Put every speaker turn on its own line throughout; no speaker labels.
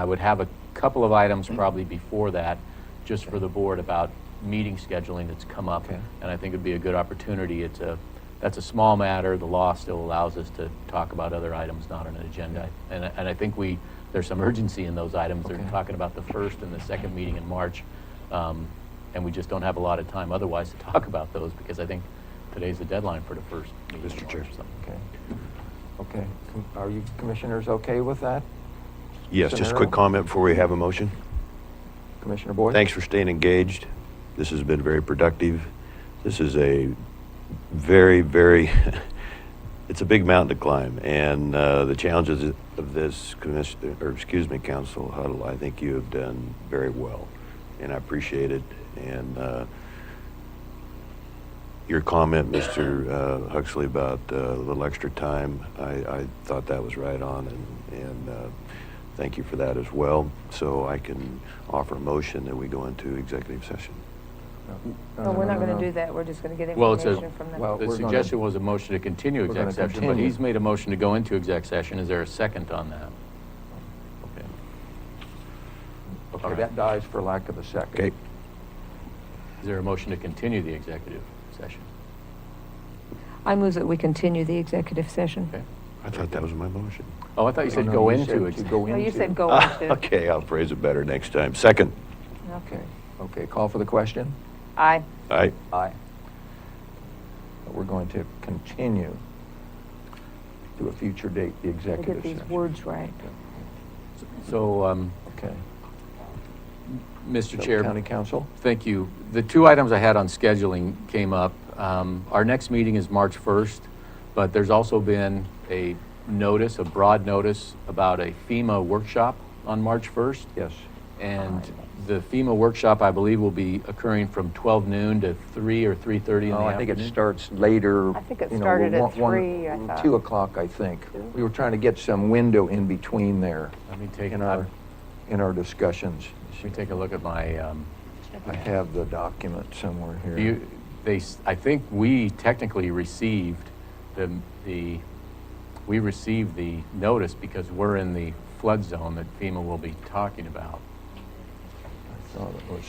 I would have a couple of items probably before that, just for the board about meeting scheduling that's come up.
Okay.
And I think it'd be a good opportunity. It's a, that's a small matter. The law still allows us to talk about other items not on an agenda. And, I- and I think we, there's some urgency in those items. They're
Okay.
talking about the first and the second meeting in March. um, And we just don't have a lot of time otherwise to talk about those because I think today's the deadline for the first meeting in
Mr.
March,
Chair.
so.
Okay. Okay. Com- Are you commissioners okay with that?
Yes, just a quick
Scenario?
comment before we have a motion.
Commissioner Boyd?
Thanks for staying engaged. This has been very productive. This is a very, very, it's a big mountain to climb. And uh, the challenges of this commission, or excuse me, council huddle, I think you have done very well. And I appreciate it. And uh, your comment, Mr. uh, Huxley, about uh, a little extra time, I, I thought that was right on, and, and uh, thank you for that as well. So I can offer a motion that we go into executive session.
No,
No,
no,
we're
no,
not
no,
going to
no.
do that, we're just going to get
Well, it's a-
information from them.
Well,
The
we're gonna-
suggestion was a motion to continue
We're gonna
exec session, but
continue.
he's made a motion to go into exec session. Is there a second on that? Okay.
Okay, that dies for lack of a second.
Okay.
Is there a motion to continue the executive session?
I move that we continue the executive session.
Okay.
I thought that was my motion.
Oh, I thought you
No,
said
no,
go
you
into
said to
exec.
go
Well, Oh, you
into-
said go
Ah,
into.
Okay, I'll phrase it better next time. Second.
Okay, okay. Call for the question?
Aye.
Aye.
Aye. But We're going to continue to a future date, the
We'll
executive
Get
session.
these words right.
So, um,
Okay. So,
Mr. Chair.
County Council?
Thank you. The two items I had on scheduling came up. Um, Our next meeting is March 1st, but there's also been a notice, a broad notice about a FEMA workshop on March 1st.
Yes.
And the FEMA workshop, I believe, will be occurring from 12 noon to 3 or 3:30 in the afternoon.
No, Oh, I think it starts later.
I think it
you know,
started at
one- one-
three, I thought.
Two o'clock, I think. We were trying to get some window in between there
Let me take,
in
let
our, in our discussions.
me take a look at my, um,
I have the document somewhere here.
Do you, they, s- I think we technically received the, the, we received the notice because we're in the flood zone that FEMA will be talking about.
I thought it was.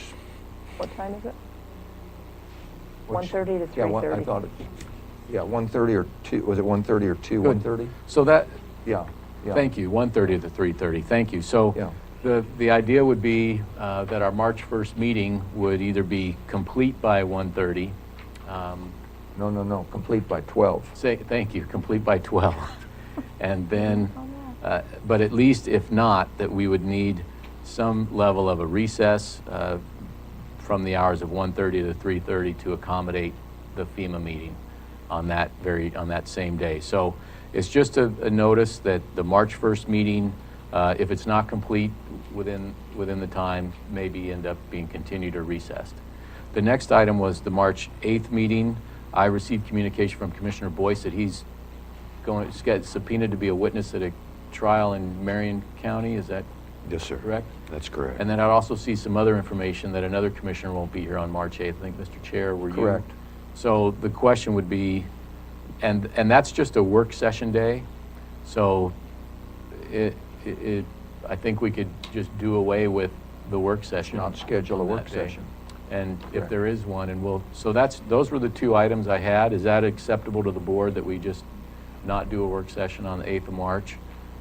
What time is it?
what's-
1:30 to
Yeah, one- I
3:30.
thought it, yeah, 1:30 or 2, was it 1:30 or 2,
Good.
1:30?
So that,
Yeah, yeah.
thank you, 1:30 to 3:30, thank you.
Yeah.
So the, the idea would be uh, that our March 1st meeting would either be complete by 1:30, um,
No, no, no, complete by 12.
Say, thank you, complete by 12. And then, uh, but at least if not, that we would need some level of a recess uh, from the hours of 1:30 to 3:30 to accommodate the FEMA meeting on that very, on that same day. So it's just a a notice that the March 1st meeting, uh, if it's not complete within, within the time, maybe end up being continued or recessed. The next item was the March 8th meeting. I received communication from Commissioner Boyce that he's going, he's got subpoenaed to be a witness at a trial in Marion County, is that
Yes, sir.
correct?
That's correct.
And then I'd also see some other information that another commissioner won't be here on March 8th. I think, Mr. Chair, were you?
Correct.
So the question would be, and, and that's just a work session day, so it, it- it, I think we could just do away with the work session.
Not schedule a
on
work
that day.
session.
And if
Correct.
there is one, and we'll, so that's, those were the two items I had. Is that acceptable to the board that we just not do a work session on the 8th of March?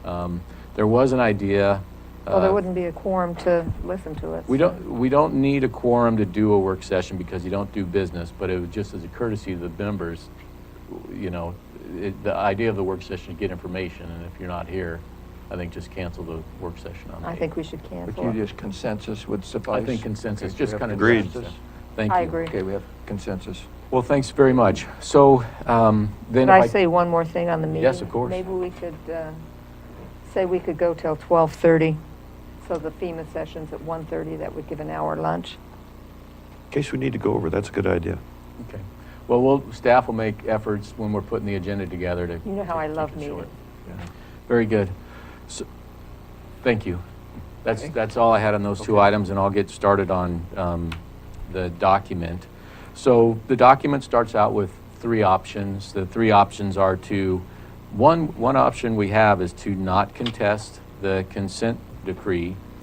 Um, There was an idea.
Well,
uh,
there wouldn't be a quorum to listen to it.
we
so-
don't, we don't need a quorum to do a work session because you don't do business, but it was just as a courtesy to the members, you know, it, the idea of the work session is get information, and if you're not here, I think just cancel the work session on the
I think we should
But
cancel
you
it.
just consensus would suffice?
I think consensus,
Okay,
just
we have
kind of.
Agreed.
consensus.
consensus?
Thank you.
I agree.
Okay, we have consensus.
Well, thanks very much. So, um, then
Could
if I.
I say one more thing on the meeting?
Yes, of course.
Maybe we could uh, say we could go till 12:30, so the FEMA session's at 1:30, that would give an hour lunch.
In case we need to go over, that's a good idea.
Okay. Well, we'll, staff will make efforts when we're putting the agenda together to.
You know how I
to
love
keep it short.
meetings.
Yeah.
Very good. So, thank you. That's,
Okay.
that's all I had on those two
Okay.
items, and I'll get started on um, the document. So the document starts out with three options. The three options are to, one, one option we have is to not contest the consent decree